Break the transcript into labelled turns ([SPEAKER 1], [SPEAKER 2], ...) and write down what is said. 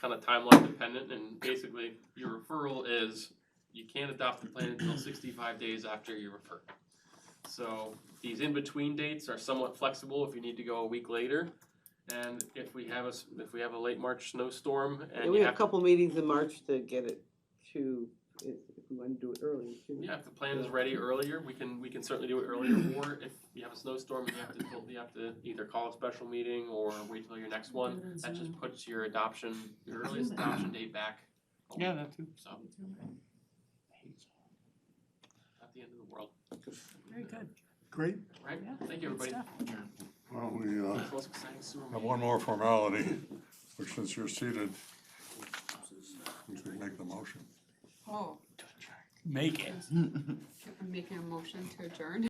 [SPEAKER 1] kind of timeline dependent, and basically your referral is you can't adopt the plan until sixty-five days after you refer. So these in-between dates are somewhat flexible if you need to go a week later. And if we have a, s- if we have a late March snowstorm
[SPEAKER 2] And
[SPEAKER 1] and
[SPEAKER 2] we
[SPEAKER 1] you
[SPEAKER 2] have a
[SPEAKER 1] have to,
[SPEAKER 2] couple meetings in March to get it to, if if we want to do it early. we can.
[SPEAKER 1] yeah, if the plan is ready earlier, we can, we can certainly do it earlier. Or if you have a snowstorm and you have to, pull- you have to either call a special meeting or wait till your next one. That just puts your adoption, your earliest adoption date back. a week.
[SPEAKER 3] that too.
[SPEAKER 1] So, not the end of the world,
[SPEAKER 4] Very good.
[SPEAKER 3] Great.
[SPEAKER 1] right?
[SPEAKER 4] Yeah,
[SPEAKER 1] Thank you,
[SPEAKER 4] Good
[SPEAKER 1] everybody.
[SPEAKER 4] stuff.
[SPEAKER 5] Well, we uh,
[SPEAKER 1] That's the most exciting sewer
[SPEAKER 5] have
[SPEAKER 1] meeting.
[SPEAKER 5] one more formality, which since you're seated, we could make the motion.
[SPEAKER 6] Oh,
[SPEAKER 3] Make it.
[SPEAKER 6] I'm making a motion to adjourn.